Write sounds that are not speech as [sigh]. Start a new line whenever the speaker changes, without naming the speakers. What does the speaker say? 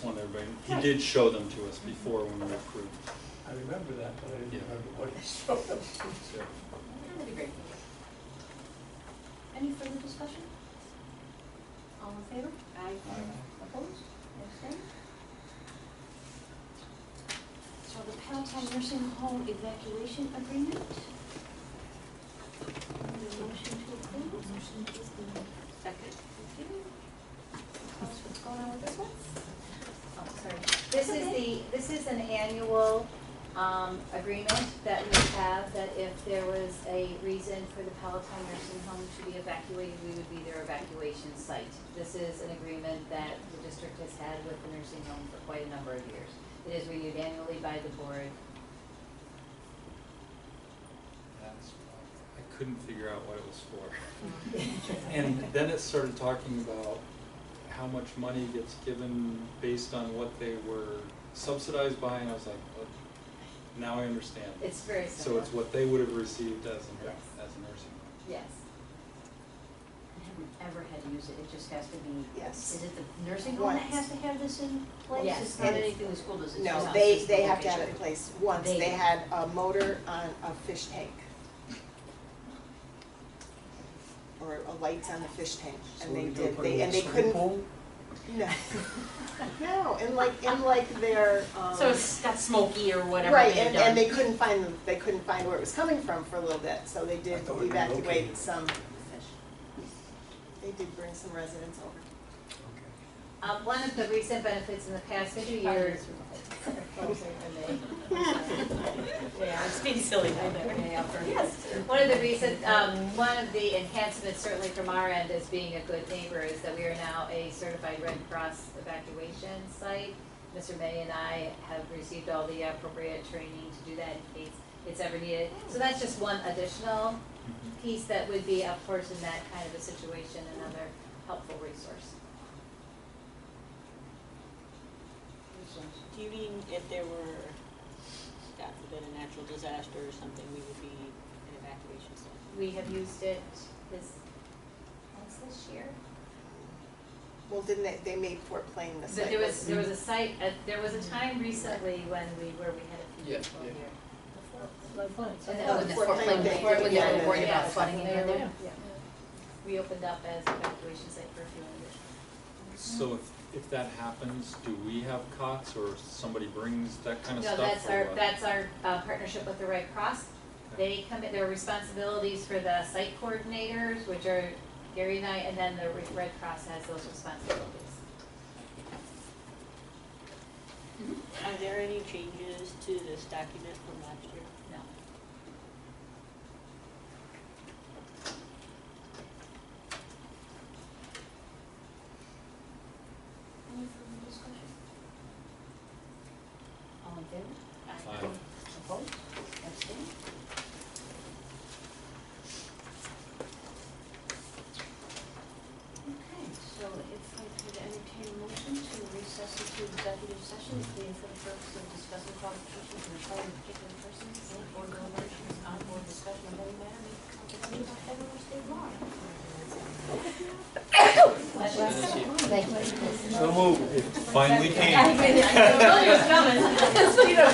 everybody. He did show them to us before when we approved.
I remember that, but I
Yeah.
didn't remember what he showed us.
So,
That'd be great. Any further discussion? All in favor? Aye. Opposed? Abstained? So the Palatine Nursing Home evacuation agreement. Need a motion to approve? Motion to approve. Second. Thank you. Tell us what's going on with this one?
Oh, sorry. This is the, this is an annual um, agreement that we have, that if there was a reason for the Palatine nursing home to be evacuated, we would be their evacuation site. This is an agreement that the district has had with the nursing home for quite a number of years. It is renewed annually by the board.
that's why I couldn't figure out what it was for. And then it started talking about how much money gets given based on what they were subsidized by, and I was like, "What?" now I understand.
It's very
So
simple.
it's what they would have received as a,
Yes.
as a nursing home.
Yes. I haven't ever had to use it, it just has to be.
Yes.
Is it the
Nursing
nursing
home
home?
that has to have this in place?
Yes.
It's not anything the school does. it's just
No,
us,
they,
it's the
they have to have it in
location.
place. Once,
They-
they had a motor on a fish tank. Or a lights on the fish tank, and they did, they, and they couldn't. [laughs] No. No, and like, and like their, um.
So it's got smoky or whatever
Right,
they've
and, and they
done.
couldn't find, they couldn't find where it was coming from for a little bit, so they
I
did
thought it relocated.
evacuate some, they did bring some residents over. [laughs]
Okay.
Uh, one of the recent benefits in the past few [laughs] years.
Yeah, it's being silly, I know.
Yes, one of the recent, um, one of the enhancements certainly from our end as being a good neighbor is that we are now a certified Red Cross evacuation site. Mr. May and I have received all the appropriate training to do that in case it's ever needed. So that's just one additional
Mm-hmm.
piece that would be, of course, in that kind of a situation, another helpful resource.
Do you mean if there were, God forbid, a natural disaster or something, we would be in evacuation center?
We have used it this, once this year.
Well, didn't they, they made Fort Plain the
But
site.
there was, there was a site, uh, there was a time recently when we, where we had a few
Yeah,
people
yeah.
here.
So
Oh,
And
that
then
was
the
Fort
floodplain
Plain
day,
before, when they
yeah,
were worried about
yeah, yeah,
flooding in
they were-
there.
yeah. We opened up as evacuation site for a few years.
So if, if that happens, do we have cots or somebody brings that kind of
No,
stuff?
that's
or
our,
what?
that's our uh, partnership with the Red Cross. They come, in- there are responsibilities for the site coordinators, which are Gary and I, and then the Re- Red Cross has those responsibilities.
Are there any changes to this document from last year?
No.
Any further discussion?
All in favor?
Aye.
Opposed? Abstained?
Okay, so if I could entertain a motion to recess into executive session, being for the purpose of discussing qualifications and employment of particular persons and or deliberations on board discussion of any matter may be confidential by federal or state law.
Finally came.
I knew it was coming.